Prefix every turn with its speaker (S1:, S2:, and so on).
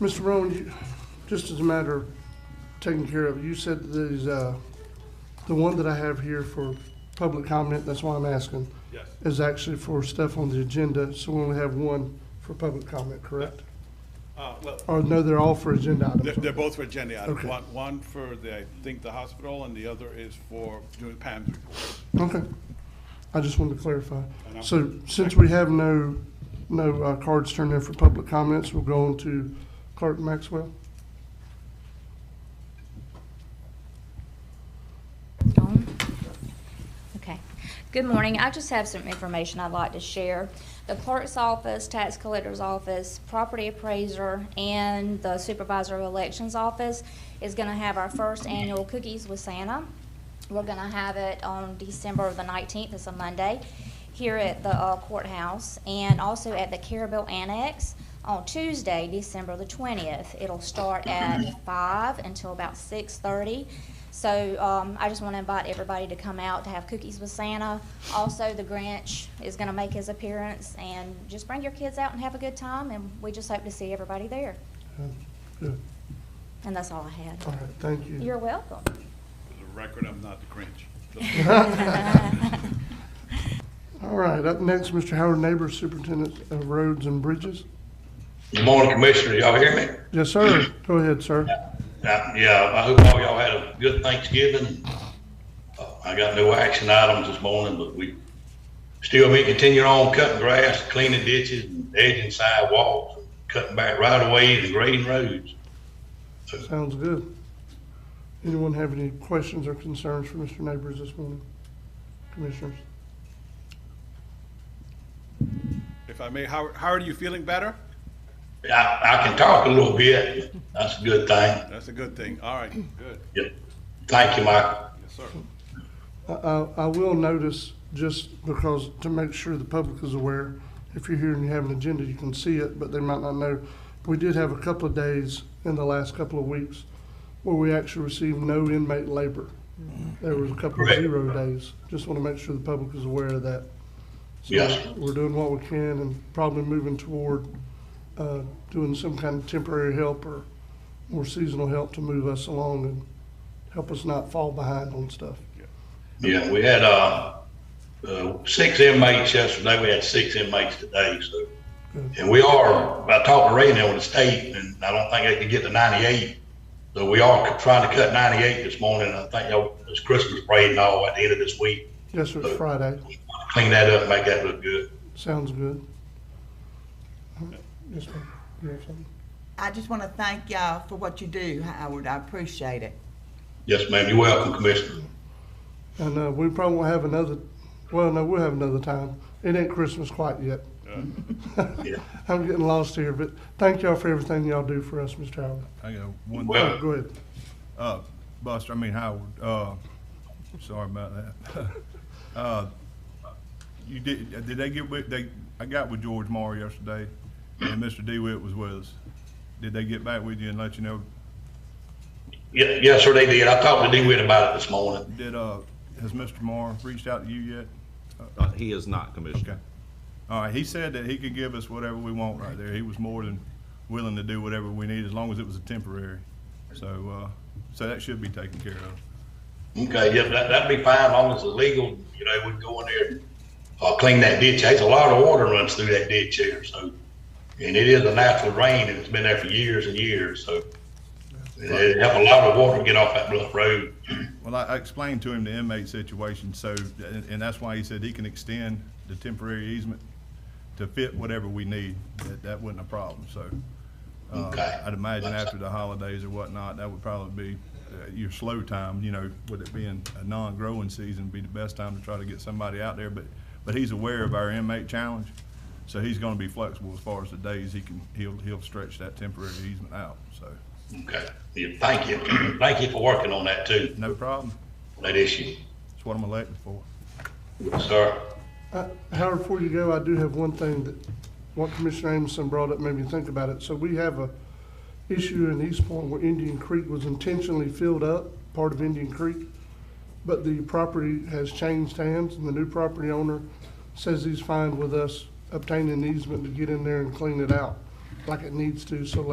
S1: Mr. Rowan, you- just as a matter of taking care of, you said that these, uh, the one that I have here for public comment, that's why I'm asking,
S2: Yes,
S1: is actually for stuff on the agenda, so we only have one for public comment, correct?
S2: uh, well,
S1: Or no, they're all for agenda
S2: they're,
S1: items.
S2: they're both for agenda items.
S1: Okay.
S2: One, one for the, I think, the hospital, and the other is for doing Pam's report.
S1: Okay. I just wanted to clarify.
S2: And I'm-
S1: So since we have no, no uh, cards turned in for public comments, we'll go on to Clerk Maxwell.
S3: Dawn? Okay. Good morning. I just have some information I'd like to share. The clerk's office, tax collector's office, property appraiser, and the supervisor of elections office is going to have our first annual Cookies with Santa. We're going to have it on December the 19th. It's a Monday here at the uh, courthouse and also at the Carabel Annex on Tuesday, December the 20th. It'll start at 5 until about 6:30. So um, I just want to invite everybody to come out to have cookies with Santa. Also, the Grinch is going to make his appearance, and just bring your kids out and have a good time, and we just hope to see everybody there.
S1: Uh, Good.
S3: And that's all I had.
S1: All right, thank you.
S3: You're welcome.
S2: For the record, I'm not the Grinch.
S1: All right, up next, Mr. Howard Neighbors, Superintendent of Roads and Bridges.
S4: Good morning, Commissioner. Y'all hear me?
S1: Yes, sir. Go ahead, sir.
S4: Uh, Yeah, I hope all y'all had a good Thanksgiving. Uh, I got no action items this morning, but we still may continue on cutting grass, cleaning ditches, and edging sidewalks, cutting back right away and grading roads.
S1: Sounds good. Anyone have any questions or concerns for Mr. Neighbors this morning? Commissioners?
S2: If I may, how, how are you feeling better?
S4: I, I can talk a little bit. That's a good thing.
S2: That's a good thing. All right, good.
S4: Yeah. Thank you, Michael.
S2: Yes, sir.
S1: I, I, I will notice, just because, to make sure the public is aware, if you're here and you have an agenda, you can see it, but they might not know. We did have a couple of days in the last couple of weeks where we actually received no inmate labor. There was a couple of
S4: Correct.
S1: zero days. Just want to make sure the public is aware of that. So
S4: Yes.
S1: We're doing what we can and probably moving toward, uh, doing some kind of temporary help or more seasonal help to move us along and help us not fall behind on stuff.
S4: Yeah, we had, uh, uh, six inmates yesterday, we had six inmates today, so. And we are, I talked to Ray now with the state, and I don't think they can get to ninety-eight. So we are trying to cut ninety-eight this morning, I think, y'all, it's Christmas parade and all at the end of this week.
S1: Yes, sir, it's Friday.
S4: Clean that up, make that look good.
S1: Sounds good. Yes, ma'am. You have something?
S5: I just want to thank y'all for what you do, Howard. I appreciate it.
S4: Yes, ma'am, you're welcome, Commissioner.
S1: And, uh, we probably won't have another, well, no, we'll have another time. It ain't Christmas quite yet.
S2: Yeah.
S4: Uh, Yeah.
S1: I'm getting lost here, but thank y'all for everything y'all do for us, Mr. Howard.
S6: I got one,
S4: Well-
S1: Oh, Go ahead.
S6: uh, Buster, I mean Howard, uh, sorry about that. Uh, you did, did they get with, they, I got with George Moore yesterday, and Mr. DeWitt was with us. Did they get back with you and let you know,
S4: Yeah, yes, sir, they did. I talked to DeWitt about it this morning.
S6: did, uh, has Mr. Moore reached out to you yet?
S7: Uh, He is not, Commissioner.
S6: Okay. All right, he said that he could give us whatever we want right there. He was more than willing to do whatever we need, as long as it was a temporary. So, uh, so that should be taken care of.
S4: Okay, yeah, that, that'd be fine, as long as it's legal, you know, we'd go in there and, uh, clean that ditch. There's a lot of water runs through that ditch here, so. And it is a natural rain, and it's been there for years and years, so. It'd help a lot of water get off that bluff road.
S6: Well, I I explained to him the inmate situation, so, and, and that's why he said he can extend the temporary easement to fit whatever we need. That, that wasn't a problem, so. uh,
S4: Okay.
S6: I'd imagine
S4: That's-
S6: after the holidays or whatnot, that would probably be uh, your slow time, you know, with it being a non-growing season, be the best time to try to get somebody out there, but, but he's aware of our inmate challenge, so he's gonna be flexible as far as the days he can, he'll, he'll stretch that temporary easement out, so,
S4: Okay, yeah, thank you, thank you for working on that too,
S6: no problem.
S4: that issue.
S6: That's what I'm elected for.
S4: Yes, sir.
S1: Uh, Howard, before you go, I do have one thing that, what Commissioner Amison brought up made me think about it. So we have a issue in East Point where Indian Creek was intentionally filled up, part of Indian Creek. But the property has changed hands and the new property owner says he's fine with us obtaining an easement to get in there and clean it out like it needs to, so like